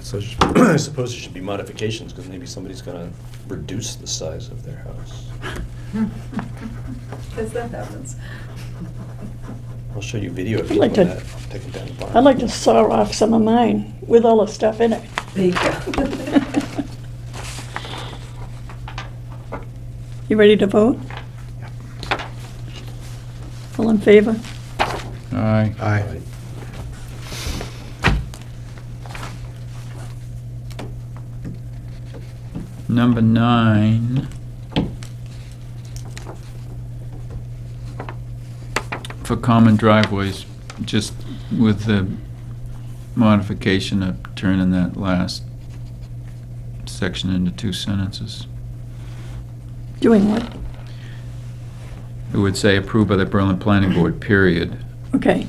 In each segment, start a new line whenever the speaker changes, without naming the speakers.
So sh- I suppose it should be modifications, because maybe somebody's gonna reduce the size of their house.
Because that happens.
I'll show you video if
I'd
you
like
want
to-
that, taking down the barn.
I'd like to saw off some of mine with all the stuff in it.
There you go.
You ready to vote? All in favor?
Aye.
Aye.
Number nine. For common driveways, just with the modification of turning that last section into two sentences.
Doing what?
It would say approved by the Berlin Planning Board, period.
Okay.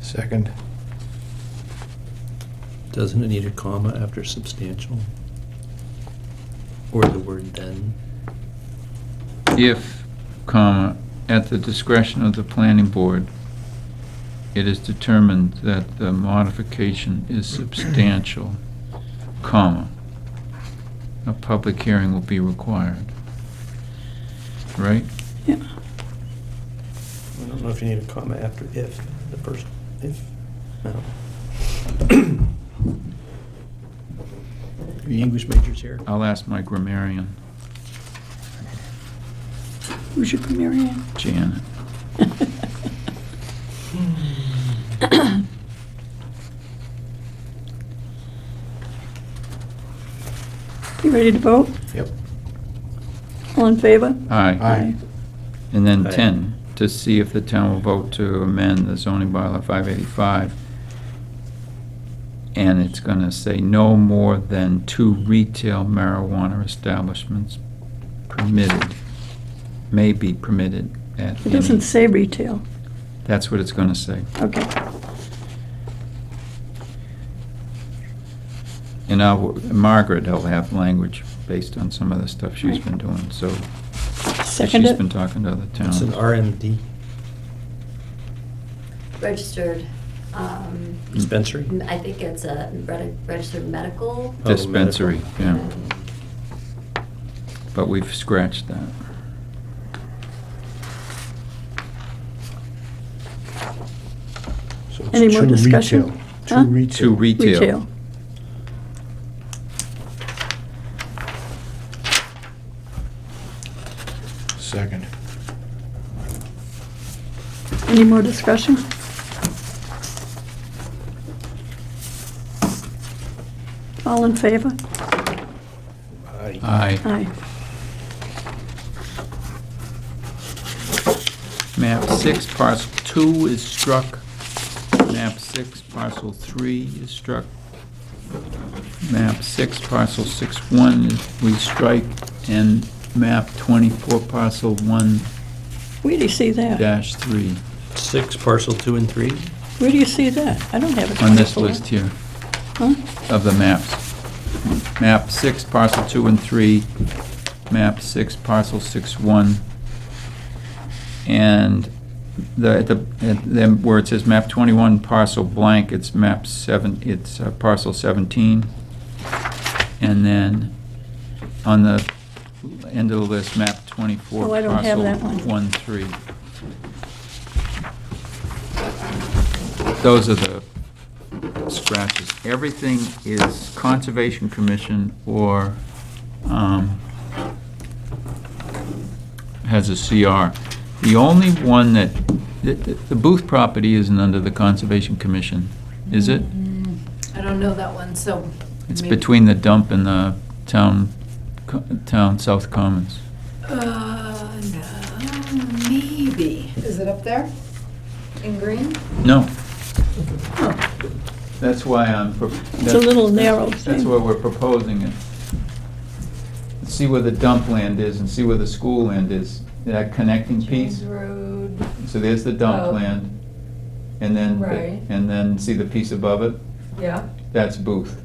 Second.
Doesn't it need a comma after substantial? Or the word then?
if, comma, at the discretion of the planning board, it is determined that the modification is substantial, comma, a public hearing will be required. Right?
Yeah.
I don't know if you need a comma after if, the first if, no. The English majors here.
I'll ask my grammarian,
Who's your Mary Ann?
Janet.
You ready to vote?
Yep.
All in favor?
Aye.
Aye.
And then
Aye.
10, to see if the town will vote to amend the zoning bylaw 585. And it's going to say no more than two retail marijuana establishments permitted, may be permitted at
It
any-
doesn't say retail.
That's what it's going to say.
Okay.
And I will- Margaret will have language based on some of the stuff she's
Right.
been doing, so
Second
she's been
it?
talking to other
It's
towns.
an RMD
registered, um,
dispensary?
m- I think it's a reg- registered medical.
Oh, medical.
Dispensary, yeah.
um,
But we've scratched that.
So it's
Any more
two
discussion?
retail.
Huh?
Two retail.
Two retail.
Retail.
Second.
Any more discussion? All in favor?
Aye.
Aye.
Aye.
Map six, parcel two is struck. Map six, parcel three is struck. Map six, parcel six one, is- we strike, and map twenty-four, parcel one
Where do you see that?
dash three,
Six, parcel two and three?
Where do you see that? I don't have a 24.
on this list here
Huh?
of the maps. Map six, parcel two and three, map six, parcel six one. And the, at the, at them, where it says map twenty-one parcel blank, it's map seven, it's uh, parcel seventeen. And then on the end of the list, map twenty-four.
Oh, I don't have
parcel
that one.
One, three. Those are the scratches. Everything is Conservation Commission or, um, has a CR. The only one that, the- the the Booth property isn't under the Conservation Commission, is it?
Mm, I don't know that one, so.
It's
maybe-
between the dump and the town, co- town South Commons.
Uh, no, maybe. Is it up there? In green?
No. That's why I'm. pro-
It's a little narrow
That's
thing.
why we're proposing it. See where the dump land is and see where the school land is, that connecting piece.
James Road.
So there's the dump
Oh.
land, and then,
Right.
and then see the piece above it?
Yeah.
That's Booth.